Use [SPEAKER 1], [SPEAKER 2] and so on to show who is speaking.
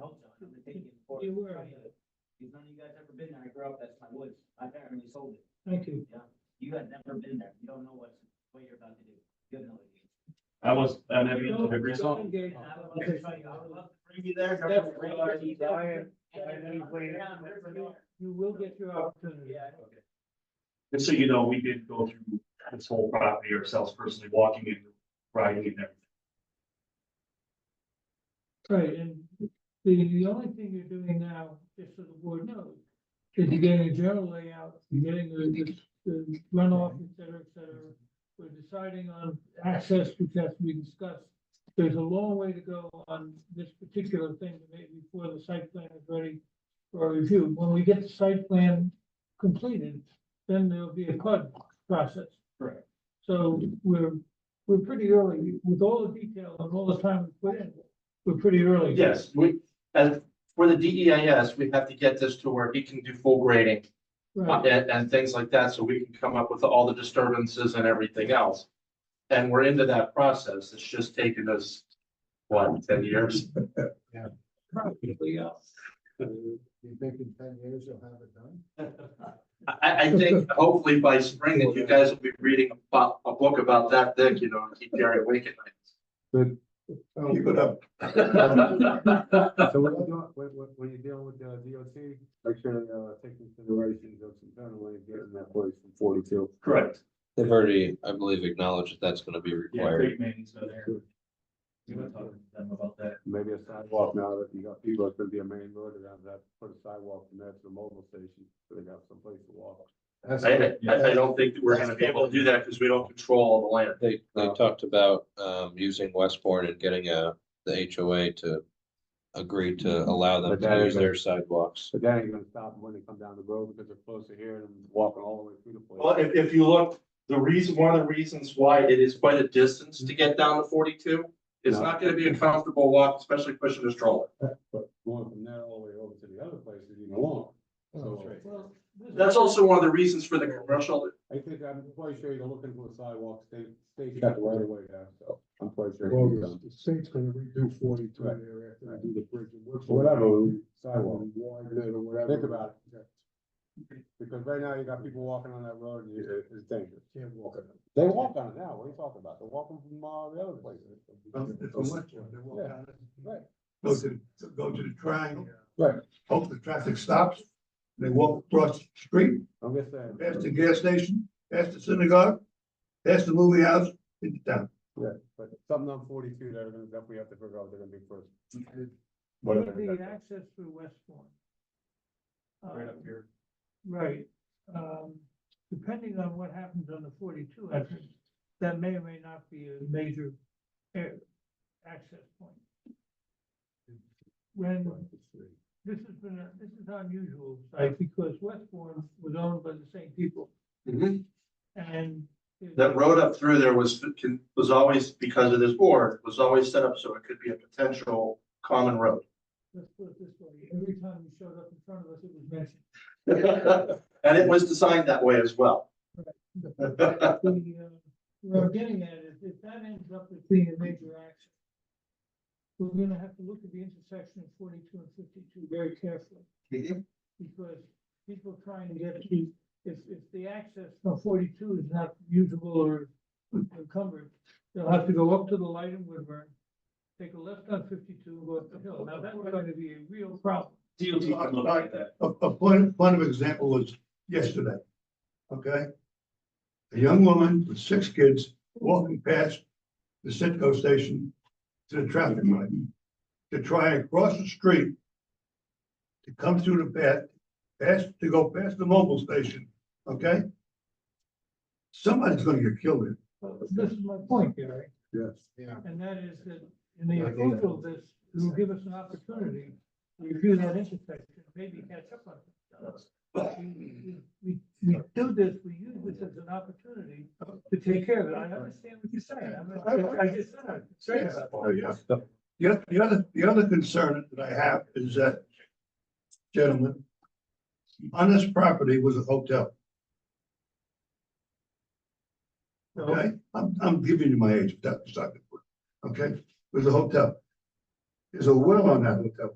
[SPEAKER 1] old John, I'm gonna take you before.
[SPEAKER 2] You were.
[SPEAKER 1] Because none of you guys ever been there, I grew up, that's my woods, my family sold it,
[SPEAKER 2] Thank you.
[SPEAKER 1] you guys never been there, you don't know what's, what you're about to do, you have no idea.
[SPEAKER 3] I was, I never
[SPEAKER 2] You
[SPEAKER 3] even
[SPEAKER 2] know,
[SPEAKER 3] took a green song.
[SPEAKER 2] Golden Gate-
[SPEAKER 1] And I would love to show you, I would love to bring you there.
[SPEAKER 2] That's-
[SPEAKER 4] Brian,
[SPEAKER 1] And
[SPEAKER 4] I know you played it.
[SPEAKER 1] Yeah, there's a door.
[SPEAKER 2] You will get your opportunity.
[SPEAKER 1] Yeah, okay.
[SPEAKER 3] And so, you know, we did go through this whole property ourselves personally, walking and riding and everything.
[SPEAKER 2] Right, and the, the only thing you're doing now, just so the board knows, is you're getting a general layout, you're getting the, the runoff, et cetera, et cetera. We're deciding on access, which has to be discussed. There's a long way to go on this particular thing, maybe before the site plan is ready for review. When we get the site plan completed, then there'll be a CUD process.
[SPEAKER 3] Correct.
[SPEAKER 2] So we're, we're pretty early, with all the detail and all the time we put in, we're pretty early.
[SPEAKER 4] Yes, we, as for the DEIS, we have to get this to where he can do full grading uh,
[SPEAKER 2] Right,
[SPEAKER 4] and, and things like that, so we can come up with all the disturbances and everything else. And we're into that process. It's just taken us, what, ten years?
[SPEAKER 2] probably, uh,
[SPEAKER 5] You think in ten years you'll have it done?
[SPEAKER 4] I, I- I think hopefully by spring that you guys will be reading about a book about that thick, you know, and keep Gary awake at
[SPEAKER 5] Keep it up.
[SPEAKER 4] night.
[SPEAKER 5] So what you doing, when, when, when you're dealing with, uh, DOT, make sure, uh, take into consideration those internally and getting that place from forty-two.
[SPEAKER 3] Correct.
[SPEAKER 6] They've already, I believe, acknowledged that that's gonna be
[SPEAKER 3] Yeah,
[SPEAKER 6] required.
[SPEAKER 3] great man, so there. You wanna talk to them about that?
[SPEAKER 5] Maybe a sidewalk now that you got people, it's gonna be a main road, and have that, put a sidewalk from there to the mobile station, so they got someplace to walk.
[SPEAKER 4] I, I, I don't think that we're gonna be able to do that because we don't control all the land.
[SPEAKER 6] They, they
[SPEAKER 5] Oh.
[SPEAKER 6] talked about, um, using Westbourne and getting a, the HOA to agree to allow them
[SPEAKER 5] Mm-hmm. But that
[SPEAKER 6] to use
[SPEAKER 5] is a-
[SPEAKER 6] their sidewalks.
[SPEAKER 5] But that ain't gonna stop them when they come down the road, because they're closer here and walking all the way through the place.
[SPEAKER 4] Well, if, if you look, the reason, one of the reasons why it is quite a distance to get down to forty-two, it's
[SPEAKER 5] No.
[SPEAKER 4] not gonna be a comfortable walk, especially pushing a stroller.
[SPEAKER 5] But going from there all the way over to the other place is even longer. So
[SPEAKER 2] well. this-
[SPEAKER 4] That's also one of the reasons for the commercial,
[SPEAKER 5] I think I'm quite sure you're looking for a sidewalk, state, state's got the right of way there, so I'm quite sure.
[SPEAKER 7] Well,
[SPEAKER 5] it's
[SPEAKER 7] the-
[SPEAKER 5] done.
[SPEAKER 7] the state's gonna redo forty-two
[SPEAKER 5] Right.
[SPEAKER 7] there after they do the bridge and works.
[SPEAKER 5] Whatever, sidewalk,
[SPEAKER 7] Sidewalk, widen it or whatever.
[SPEAKER 5] think about it. Because right now you got people walking on that road and it- it's dangerous.
[SPEAKER 7] Can't walk it.
[SPEAKER 5] They walk on it now, what are you talking about? They're walking from uh, the other places.
[SPEAKER 7] From Westwood, they walk
[SPEAKER 5] Yeah.
[SPEAKER 7] down it.
[SPEAKER 5] Right.
[SPEAKER 7] Go to, to go to the triangle.
[SPEAKER 5] Right.
[SPEAKER 7] Hope the traffic stops, they walk across the street,
[SPEAKER 5] I'm just saying.
[SPEAKER 7] past the gas station, past the synagogue, past the movie house, into town.
[SPEAKER 5] But something on forty-two that are gonna, that we have to figure out, they're gonna be first.
[SPEAKER 2] Would
[SPEAKER 5] Whatever
[SPEAKER 2] be
[SPEAKER 5] that-
[SPEAKER 2] access through Westbourne.
[SPEAKER 3] Right
[SPEAKER 2] Uh,
[SPEAKER 3] up here.
[SPEAKER 2] Right, um, depending on what happens on the forty-two entrance, that may or may not be a major air access point. When, this has been, a- this is unusual, site because Westbourne was owned by the same people
[SPEAKER 4] that,
[SPEAKER 2] and.
[SPEAKER 4] that road up through there was, was always, because of this board, was always set up so it could be a potential common road.
[SPEAKER 2] Let's put it this way, every time you showed up in front of us, it was mentioned.
[SPEAKER 4] And it was designed that way as well.
[SPEAKER 2] The, uh, Where I'm getting at is if that ends up as being a major action, we're gonna have to look at the intersection of forty-two and fifty-two very carefully.
[SPEAKER 4] Mhm.
[SPEAKER 2] Because people trying to get to, if, if the access from forty-two is not usable or encumbered, they'll have to go up to the light in Woodburn, take a left on fifty-two, and go up the hill. Now, that's going to be a real problem.
[SPEAKER 3] DOT can look at that.
[SPEAKER 7] A, a point, point of example was yesterday, okay? A young woman with six kids walking past the Citgo station to the traffic light to try and cross the street to come through the path, past, to go past the mobile station, okay? Somebody's gonna get killed here.
[SPEAKER 2] Well, This is my point, Gary.
[SPEAKER 5] Yes.
[SPEAKER 2] And that is that in the
[SPEAKER 7] I think
[SPEAKER 2] approval of this, it will give us an opportunity to review that intersection, maybe catch up on it. We- We, we do this, we use this as an opportunity to take care of it. I understand what you're saying. I'm not- I just said I'm concerned about
[SPEAKER 7] Oh, yes. The oth- the other, the other concern that I have is that, gentlemen, on this property was a hotel. Okay, I'm, I'm giving you my age, that's not good. Okay, It was a hotel. There's a well on that hotel.